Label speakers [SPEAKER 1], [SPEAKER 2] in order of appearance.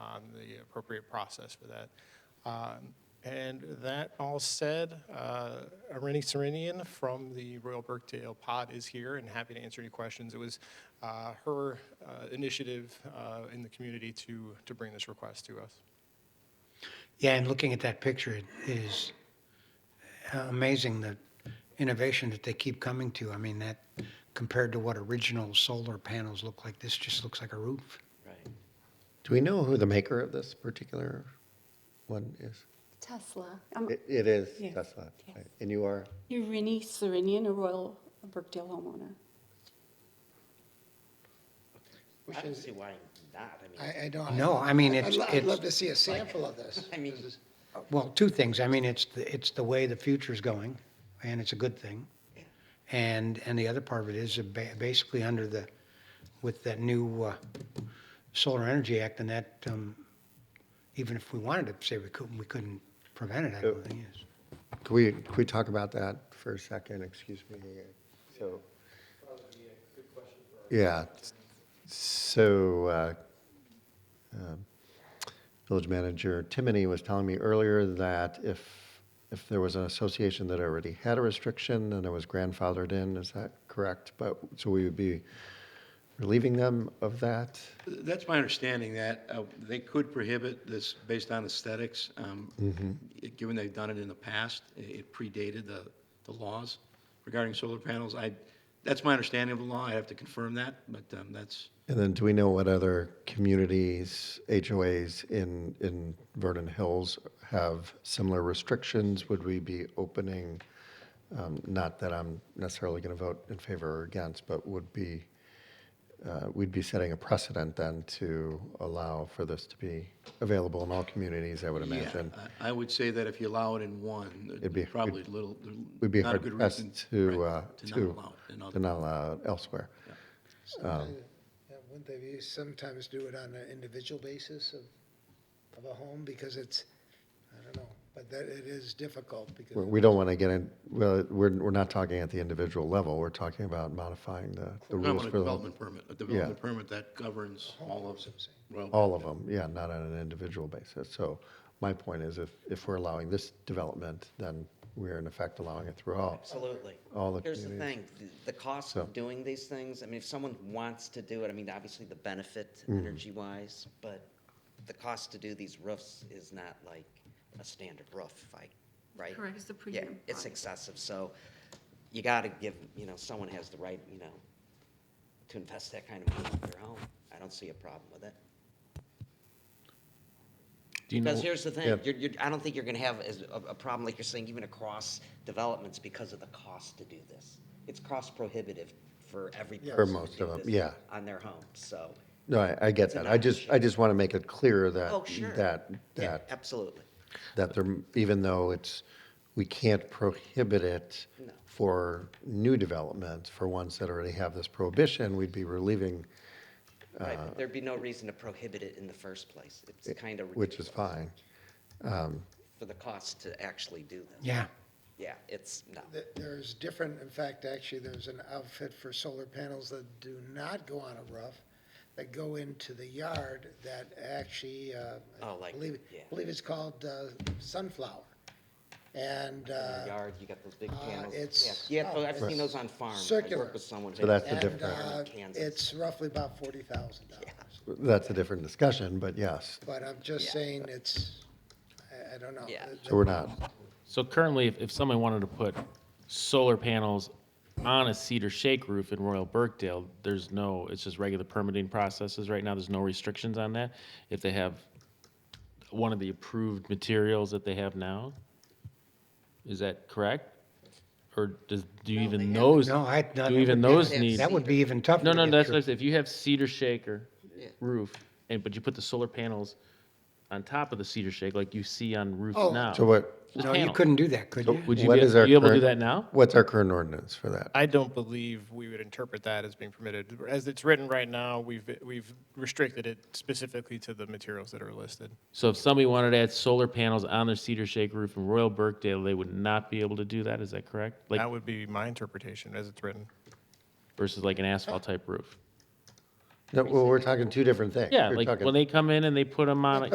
[SPEAKER 1] appropriate process for that. Um, And that all said, uh, Irene Serenian from the Royal Burkdale Pod is here and happy to answer any questions. It was uh, her uh, initiative uh, in the community to, to bring this request to us.
[SPEAKER 2] Yeah, and looking at that picture, it is amazing the innovation that they keep coming to. I mean, that compared to what original solar panels look like, this just looks like a roof.
[SPEAKER 3] Right.
[SPEAKER 4] Do we know who the maker of this particular one is?
[SPEAKER 5] Tesla. Um,
[SPEAKER 4] It, it is
[SPEAKER 5] Yes.
[SPEAKER 4] Tesla. right?
[SPEAKER 5] Yes.
[SPEAKER 4] And you are,
[SPEAKER 5] You're Rennie Serenian, a Royal Brookdale homeowner.
[SPEAKER 3] I don't see why not. I mean,
[SPEAKER 6] I, I don't.
[SPEAKER 2] No, I mean,
[SPEAKER 6] I'd
[SPEAKER 2] it's-
[SPEAKER 6] lo- I'd
[SPEAKER 2] it's-
[SPEAKER 6] love to see a sample of this.
[SPEAKER 3] I mean,
[SPEAKER 7] oh.
[SPEAKER 2] Well, two things. I mean, it's, the- it's the way the future's going, and it's a good thing. And, and the other part of it is ba- basically under the, with that new uh, Solar Energy Act and that, um, even if we wanted to say we couldn't, we couldn't prevent it, I
[SPEAKER 7] Oh.
[SPEAKER 2] don't think is.
[SPEAKER 4] could we, could we talk about that for a second? Excuse me. So. Yeah. So, uh, um, Village Manager Timoney was telling me earlier that if, if there was an association that already had a restriction and it was grandfathered in, is that correct? But, so we would be relieving them of that?
[SPEAKER 8] That's my understanding, that uh, they could prohibit this based on aesthetics. um,
[SPEAKER 4] Mm-hmm.
[SPEAKER 8] Given they've done it in the past, i- it predated the, the laws regarding solar panels. I, that's my understanding of the law, I have to confirm that, but um, that's,
[SPEAKER 4] And then do we know what other communities, HOAs in, in Vernon Hills have similar restrictions? Would we be opening, um, not that I'm necessarily going to vote in favor or against, but would be, uh, we'd be setting a precedent then to allow for this to be available in all communities, I would
[SPEAKER 8] yeah,
[SPEAKER 4] imagine.
[SPEAKER 8] I I would say that if you allow it in one,
[SPEAKER 4] It'd be-
[SPEAKER 8] there's probably little, there's
[SPEAKER 4] We'd be
[SPEAKER 8] not a
[SPEAKER 4] hard
[SPEAKER 8] good
[SPEAKER 4] pressed
[SPEAKER 8] reason
[SPEAKER 4] to,
[SPEAKER 8] right,
[SPEAKER 4] uh,
[SPEAKER 8] to not
[SPEAKER 4] to,
[SPEAKER 8] allow it in
[SPEAKER 4] to
[SPEAKER 8] other-
[SPEAKER 4] not allow it elsewhere. Um,
[SPEAKER 6] Yeah, Wouldn't they sometimes do it on an individual basis of, of a home, because it's, I don't know, but that, it is difficult, because.
[SPEAKER 4] We- We don't want to get in, well, we're, we're not talking at the individual level, we're talking about modifying the, the
[SPEAKER 8] I'm
[SPEAKER 4] rules
[SPEAKER 8] on a
[SPEAKER 4] for the
[SPEAKER 8] development permit, a development permit that governs all of them.
[SPEAKER 4] All of them, yeah, not on an individual basis. So my point is if, if we're allowing this development, then we're in effect allowing it through all.
[SPEAKER 3] Absolutely.
[SPEAKER 4] All the
[SPEAKER 3] Here's the
[SPEAKER 4] communities.
[SPEAKER 3] thing, th- the cost
[SPEAKER 4] So-
[SPEAKER 3] of doing these things, I mean, if someone wants to do it, I mean, obviously the benefit
[SPEAKER 4] Mm-hmm.
[SPEAKER 3] energy-wise, but the cost to do these roofs is not like a standard roof, I, right?
[SPEAKER 9] Correct, it's the
[SPEAKER 3] Yeah,
[SPEAKER 9] premium
[SPEAKER 3] it's
[SPEAKER 9] product.
[SPEAKER 3] excessive, so you gotta give, you know, someone has the right, you know, to invest that kind of money in their home. I don't see a problem with it.
[SPEAKER 7] Do you know,
[SPEAKER 3] Because here's the thing,
[SPEAKER 4] Yeah.
[SPEAKER 3] you're, you're, I don't think you're gonna have as, a, a problem like you're saying, even across developments because of the cost to do this. It's cost prohibitive for every person.
[SPEAKER 4] For
[SPEAKER 3] to
[SPEAKER 4] most
[SPEAKER 3] do
[SPEAKER 4] of 'em,
[SPEAKER 3] this
[SPEAKER 4] yeah.
[SPEAKER 3] On their home, so.
[SPEAKER 4] No, I, I get
[SPEAKER 3] It's a
[SPEAKER 4] that. I just, I
[SPEAKER 3] non-issue.
[SPEAKER 4] just want to make it clear that,
[SPEAKER 3] Oh, sure.
[SPEAKER 4] that,
[SPEAKER 3] Yeah,
[SPEAKER 4] that,
[SPEAKER 3] Absolutely.
[SPEAKER 4] that there, even though it's, we can't prohibit it
[SPEAKER 3] No.
[SPEAKER 4] for new developments, for ones that already have this prohibition, we'd be relieving,
[SPEAKER 3] Right,
[SPEAKER 4] uh,
[SPEAKER 3] but there'd be no reason to prohibit it in the first place. It's kind of
[SPEAKER 4] which is
[SPEAKER 3] ridiculous
[SPEAKER 4] fine.
[SPEAKER 3] for the cost to actually do this.
[SPEAKER 2] Yeah.
[SPEAKER 3] Yeah, it's, no.
[SPEAKER 6] Th- There's different, in fact, actually, there's an outfit for solar panels that do not go on a roof, that go into the yard, that actually, uh.
[SPEAKER 3] Oh, like,
[SPEAKER 6] believe-
[SPEAKER 3] yeah.
[SPEAKER 6] Believe it's called uh, Sunflower, and,
[SPEAKER 3] In
[SPEAKER 6] uh.
[SPEAKER 3] your yard, you got those big
[SPEAKER 6] uh,
[SPEAKER 3] panels.
[SPEAKER 6] it's-
[SPEAKER 3] Yeah, yeah,
[SPEAKER 6] oh,
[SPEAKER 3] I've seen those on farms. I
[SPEAKER 6] circular.
[SPEAKER 3] work with someone.
[SPEAKER 4] So
[SPEAKER 3] who-
[SPEAKER 4] that's the
[SPEAKER 6] and,
[SPEAKER 4] difference.
[SPEAKER 6] uh,
[SPEAKER 3] Kansas.
[SPEAKER 6] It's roughly about forty thousand dollars.
[SPEAKER 4] That's a different discussion, but yes.
[SPEAKER 6] But I'm just
[SPEAKER 3] Yeah.
[SPEAKER 6] saying it's, I, I don't know.
[SPEAKER 3] Yeah.
[SPEAKER 4] So we're not,
[SPEAKER 7] so currently, if, if someone wanted to put solar panels on a cedar shake roof in Royal Burkdale, there's no, it's just regular permitting processes right now, there's no restrictions on that? If they have one of the approved materials that they have now? Is that correct? Or does, do you even those?
[SPEAKER 2] No, I- no, that
[SPEAKER 7] Do even
[SPEAKER 2] would be-
[SPEAKER 7] those
[SPEAKER 3] They have
[SPEAKER 7] need?
[SPEAKER 2] That would be even tougher.
[SPEAKER 7] No,
[SPEAKER 2] to
[SPEAKER 7] no,
[SPEAKER 2] get
[SPEAKER 7] that's
[SPEAKER 2] through.
[SPEAKER 7] what I'm saying. If you have cedar shaker
[SPEAKER 3] Yeah.
[SPEAKER 7] roof, and but you put the solar panels on top of the cedar shake, like you see on roofs
[SPEAKER 6] Oh,
[SPEAKER 7] now.
[SPEAKER 4] so what,
[SPEAKER 7] just
[SPEAKER 2] No, you
[SPEAKER 7] panel.
[SPEAKER 2] couldn't do that, could you?
[SPEAKER 7] Would you
[SPEAKER 4] What
[SPEAKER 7] be,
[SPEAKER 4] is our
[SPEAKER 7] you able to do
[SPEAKER 4] current-
[SPEAKER 7] that now?
[SPEAKER 4] What's our current ordinance for that?
[SPEAKER 1] I don't believe we would interpret that as being permitted. As it's written right now, we've, we've restricted it specifically to the materials that are listed.
[SPEAKER 7] So if somebody wanted to add solar panels on their cedar shake roof in Royal Burkdale, they would not be able to do that. Is that correct? Like
[SPEAKER 1] That would be my interpretation as it's written.
[SPEAKER 7] versus like an asphalt type roof.
[SPEAKER 4] No, well, we're talking two different things.
[SPEAKER 7] Yeah,
[SPEAKER 4] We're
[SPEAKER 7] like
[SPEAKER 4] talking-
[SPEAKER 7] when they come in and they put them on.